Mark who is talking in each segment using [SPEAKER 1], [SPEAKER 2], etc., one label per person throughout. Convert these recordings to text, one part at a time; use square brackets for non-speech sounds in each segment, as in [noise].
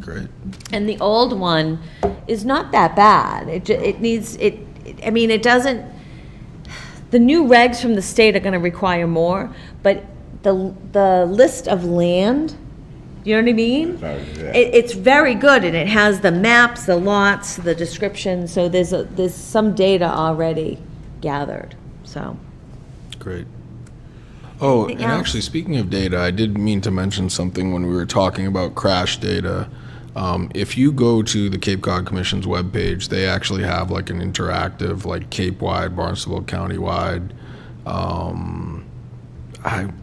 [SPEAKER 1] Great.
[SPEAKER 2] And the old one is not that bad. It, ju- it needs, it, it- I mean, it doesn't, the new regs from the state are gonna require more, but the, the list of land, you know what I mean?
[SPEAKER 3] Sorry, yeah.
[SPEAKER 2] It, it's very good, and it has the maps, the lots, the description, so there's, a- there's some data already gathered, so.
[SPEAKER 1] Great. Oh, and
[SPEAKER 2] Anything else?
[SPEAKER 1] actually, speaking of data, I did mean to mention something when we were talking about crash data. Um, if you go to the Cape Cod Commission's webpage, they actually have like an interactive, like Cape wide, Barnstable County wide. I,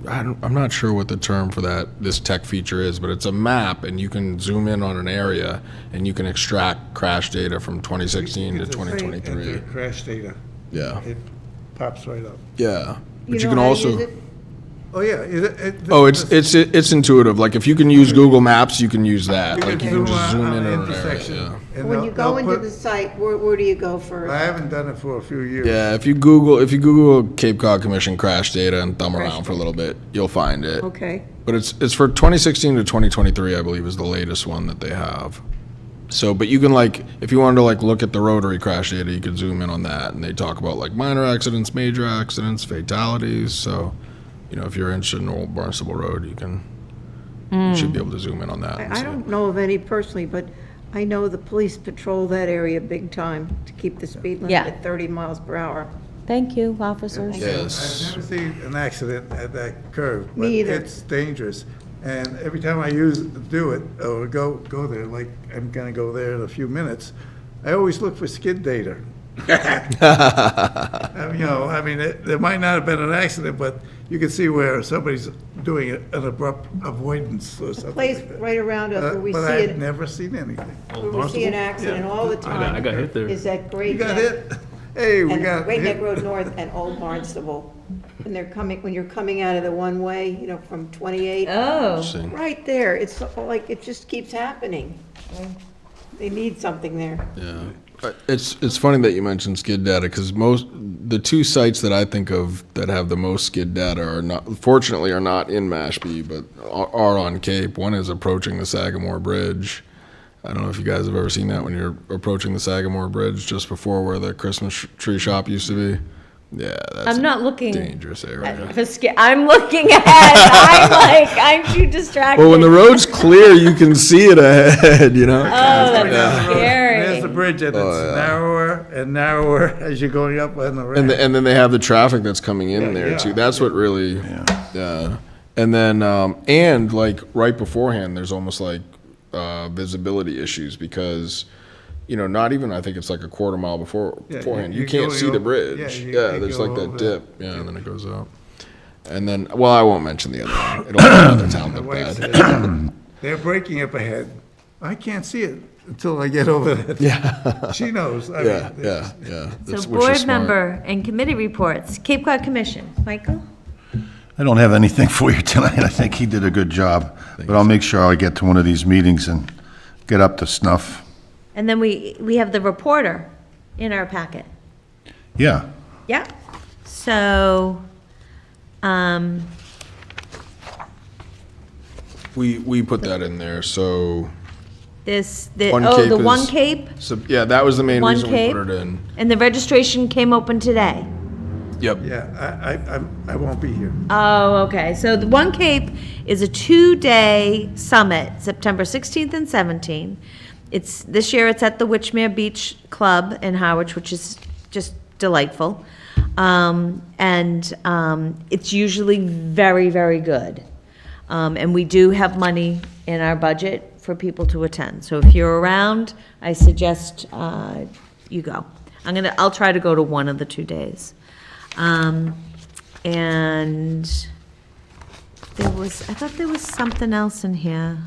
[SPEAKER 1] I don't, I'm not sure what the term for that this tech feature is, but it's a map, and you can zoom in on an area, and you can extract crash data from 2016 to
[SPEAKER 3] Enter
[SPEAKER 1] 2023.
[SPEAKER 3] crash data,
[SPEAKER 1] Yeah,
[SPEAKER 3] it pops right up.
[SPEAKER 1] yeah. But you
[SPEAKER 4] know
[SPEAKER 1] can
[SPEAKER 4] how to
[SPEAKER 1] also.
[SPEAKER 4] use it?
[SPEAKER 3] Oh, yeah. it- it-
[SPEAKER 1] Oh, it's it's it's intuitive. Like if you can use Google Maps, you can use that. Like you can just
[SPEAKER 3] out
[SPEAKER 1] zoom
[SPEAKER 3] on
[SPEAKER 1] in
[SPEAKER 3] the
[SPEAKER 1] on an
[SPEAKER 3] intersection,
[SPEAKER 1] area.
[SPEAKER 3] and
[SPEAKER 4] When
[SPEAKER 3] they'll-
[SPEAKER 4] you
[SPEAKER 3] they'll
[SPEAKER 4] go into
[SPEAKER 3] put-
[SPEAKER 4] the site, where, where do you go first?
[SPEAKER 3] I haven't done it for a few years.
[SPEAKER 1] Yeah. yeah, if you Google if you Google Cape Cod Commission crash data and thumb around for a little bit, you'll find it.
[SPEAKER 4] Okay.
[SPEAKER 1] But it's it's for 2016 to 2023, I believe, is the latest one that they have. So, but you can like if you wanted to like look at the rotary crash data, you could zoom in on that, and they talk about like minor accidents, major accidents, fatalities. So, you know, if you're interested in Old Barnstable Road, you can you should be able to zoom in on that. and
[SPEAKER 4] I, I
[SPEAKER 1] see.
[SPEAKER 4] don't know of any personally, but I know the police patrol that area big time to keep the speed limit
[SPEAKER 2] Yeah.
[SPEAKER 4] at 30 miles per hour.
[SPEAKER 2] Thank you, officers.
[SPEAKER 1] Yes.
[SPEAKER 3] I've never seen an accident at that curve.
[SPEAKER 4] Me either.
[SPEAKER 3] But it's dangerous. And every time I use, do it, or go, go there, like, I'm gonna go there in a few minutes, I always look for skid data. I mean, You know, I mean, it- there might not have been an accident, but you can see where somebody's doing an abrupt avoidance or something
[SPEAKER 4] Place
[SPEAKER 3] like that.
[SPEAKER 4] right around us
[SPEAKER 3] Uh,
[SPEAKER 4] where we see
[SPEAKER 3] But I've
[SPEAKER 4] it,
[SPEAKER 3] never seen anything.
[SPEAKER 4] where we see an accident all the
[SPEAKER 5] I got, I
[SPEAKER 4] time,
[SPEAKER 5] got hit there.
[SPEAKER 4] is that
[SPEAKER 3] You
[SPEAKER 4] Great
[SPEAKER 3] got
[SPEAKER 4] Neck.
[SPEAKER 3] hit? Hey, we
[SPEAKER 4] And
[SPEAKER 3] got
[SPEAKER 4] Great Neck
[SPEAKER 3] hit.
[SPEAKER 4] Road North and Old Barnstable. When they're coming, when you're coming out of the one-way, you know, from 28
[SPEAKER 2] Oh,
[SPEAKER 1] Interesting.
[SPEAKER 4] Right there, it's like, it just keeps happening. They need something there.
[SPEAKER 1] Yeah. Uh, It's, it's funny that you mentioned skid data because most, the two sites that I think of that have the most skid data are not, fortunately are not in Mashpee, but are, are on Cape. One is approaching the Sagamore Bridge. I don't know if you guys have ever seen that when you're approaching the Sagamore Bridge just before where the Christmas sh- tree shop used to be. Yeah, that's
[SPEAKER 2] I'm
[SPEAKER 1] a
[SPEAKER 2] not looking
[SPEAKER 1] dangerous area.
[SPEAKER 2] for sca- I'm looking ahead.
[SPEAKER 1] [laughs]
[SPEAKER 2] I'm like, I'm too distracted.
[SPEAKER 1] Well, when the road's clear, you can see it ahead, [laughs] you know?
[SPEAKER 2] Oh, that's
[SPEAKER 3] Yeah.
[SPEAKER 2] scary.
[SPEAKER 3] There's the bridge, and it's narrower and narrower [laughs] as you're going up on the
[SPEAKER 1] And, the,
[SPEAKER 3] ramp.
[SPEAKER 1] and then they have the traffic that's coming in there
[SPEAKER 3] yeah.
[SPEAKER 1] too. That's what really, yeah. And then, um, and like right beforehand, there's almost like uh, visibility issues because, you know, not even I think it's like a quarter mile before
[SPEAKER 3] Yeah,
[SPEAKER 1] beforehand.
[SPEAKER 3] you-
[SPEAKER 1] You,
[SPEAKER 3] you
[SPEAKER 1] can't
[SPEAKER 3] go-
[SPEAKER 1] see
[SPEAKER 3] you-
[SPEAKER 1] the bridge.
[SPEAKER 3] yeah,
[SPEAKER 1] Yeah,
[SPEAKER 3] you- you
[SPEAKER 1] there's
[SPEAKER 3] go
[SPEAKER 1] like that
[SPEAKER 3] over that.
[SPEAKER 1] dip. Yeah, and then it goes up. And then, well, I won't mention the other one. It'll make
[SPEAKER 3] [coughs]
[SPEAKER 1] another town
[SPEAKER 3] My
[SPEAKER 1] look
[SPEAKER 3] wife
[SPEAKER 1] [coughs] bad.
[SPEAKER 3] said, They're breaking up ahead. I can't see it until I get over that. [laughs] Yeah. She knows. I mean,
[SPEAKER 1] Yeah, yeah, yeah. That's-
[SPEAKER 2] So
[SPEAKER 1] which is
[SPEAKER 2] board
[SPEAKER 1] smart.
[SPEAKER 2] member and committee reports, Cape Cod Commission, Michael?
[SPEAKER 6] I don't have anything [laughs] for you tonight. I think he did a good job, but I'll make sure I get to one of these meetings and get up to snuff.
[SPEAKER 2] And then we, we have the reporter in our packet.
[SPEAKER 6] Yeah,
[SPEAKER 2] Yep. So, um,
[SPEAKER 1] We, we put that in there. So,
[SPEAKER 2] this, the,
[SPEAKER 1] One
[SPEAKER 2] oh,
[SPEAKER 1] Cape
[SPEAKER 2] the One
[SPEAKER 1] is-
[SPEAKER 2] Cape,
[SPEAKER 1] so yeah, that was the main
[SPEAKER 2] One
[SPEAKER 1] reason
[SPEAKER 2] Cape?
[SPEAKER 1] we put it in.
[SPEAKER 2] and the registration came open today.
[SPEAKER 1] Yep.
[SPEAKER 3] Yeah, I, I, I'm- I won't be here.
[SPEAKER 2] Oh, okay. So the One Cape is a two-day summit, September 16th and 17th. It's, this year it's at the Witchmere Beach Club in Harwich, which is just delightful. Um, and, um, it's usually very, very good. Um, and we do have money in our budget for people to attend. So if you're around, I suggest, uh, you go. I'm gonna, I'll try to go to one of the two days. Um, and there was, I thought there was something else in here.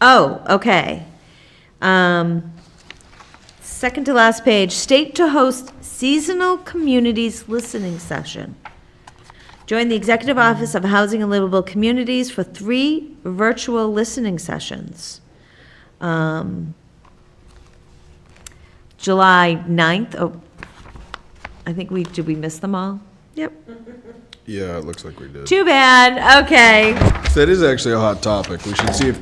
[SPEAKER 2] Oh, okay. Um, second to last page, state to host seasonal communities listening session. Join the Executive Office of Housing and Livable Communities for three virtual listening sessions. Um, July 9th, oh, I think we, did we miss them all? Yep.
[SPEAKER 1] Yeah, it looks like we did.
[SPEAKER 2] Too bad, okay.
[SPEAKER 1] That is actually a hot topic. We should see if